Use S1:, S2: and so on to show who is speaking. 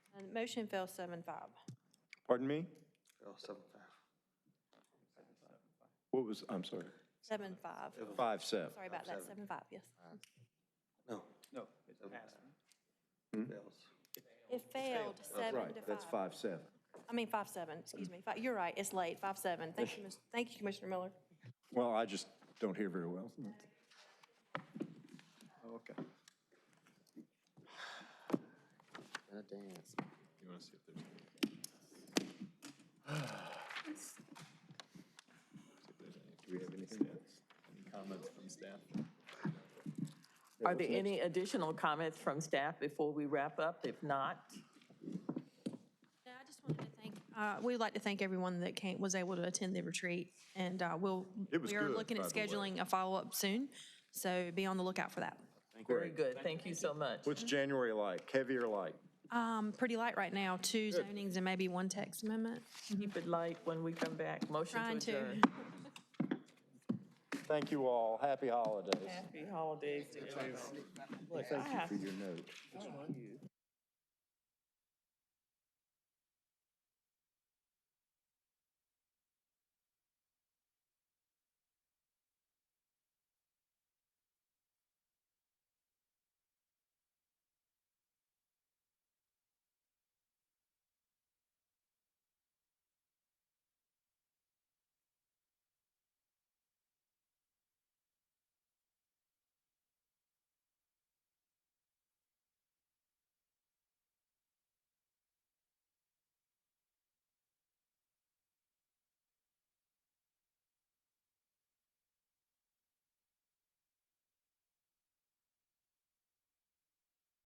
S1: And Motion fails seven five.
S2: Pardon me?
S3: Oh, seven five.
S2: What was, I'm sorry.
S1: Seven five.
S2: Five seven.
S1: Sorry about that, seven five, yes.
S3: No.
S4: No, it's a pass.
S3: Fails.
S1: It failed, seven
S2: Oh, Right,
S1: to
S2: that's
S1: five.
S2: five seven.
S1: I mean, five seven, excuse me. Five- You're right, it's late, five seven. Thank you, Ms. thank you, Commissioner Miller.
S2: Well, I just don't hear very well. Oh, Okay.
S3: dance.
S2: You want to see if there's? Do we have anything else? Any comments from staff?
S5: Are there any additional comments from staff before we wrap up? If not,
S1: Yeah, I just wanted to thank, uh, we'd like to thank everyone that came, was able to attend the retreat. And, uh, we'll,
S2: It was
S1: we are
S2: good,
S1: looking at
S2: by the way.
S1: scheduling a follow-up soon, so be on the lookout for that.
S5: very good. Thank you so much.
S2: What's January like, heavy or light?
S1: Um, pretty light right now, two zonings and maybe one text amendment.
S5: Keep it light when we come back.
S1: Trying
S5: Motion to
S1: to.
S5: adjourn.
S2: Thank you all, happy holidays.
S5: Happy holidays to everyone. Look, I have
S2: For your note.